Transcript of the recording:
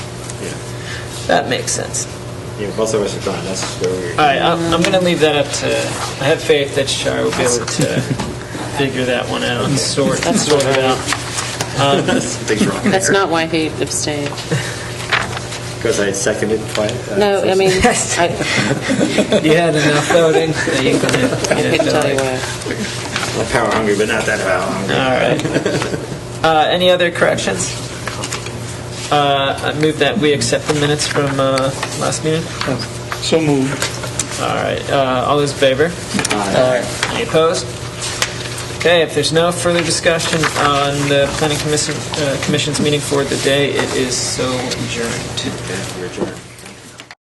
That makes sense. Yeah, both of us are gone, that's where we're. All right, I'm, I'm going to leave that up to, I have faith that Shar will be able to figure that one out and sort, sort it out. Things wrong That's not why he abstained. Because I seconded twice. uh, No, I first. mean, I You had enough voting? that you can- I you couldn't know, tell you like- why. I'm power hungry, but not that power hungry. All right. Uh, Any other corrections? Uh, I move that we accept the minutes from uh, last meeting. So moved. All right, uh, all those in favor? Any opposed? Okay, if there's no further discussion on the planning commission, uh, commission's meeting for the day, it is so adjourned. Okay, we're adjourned.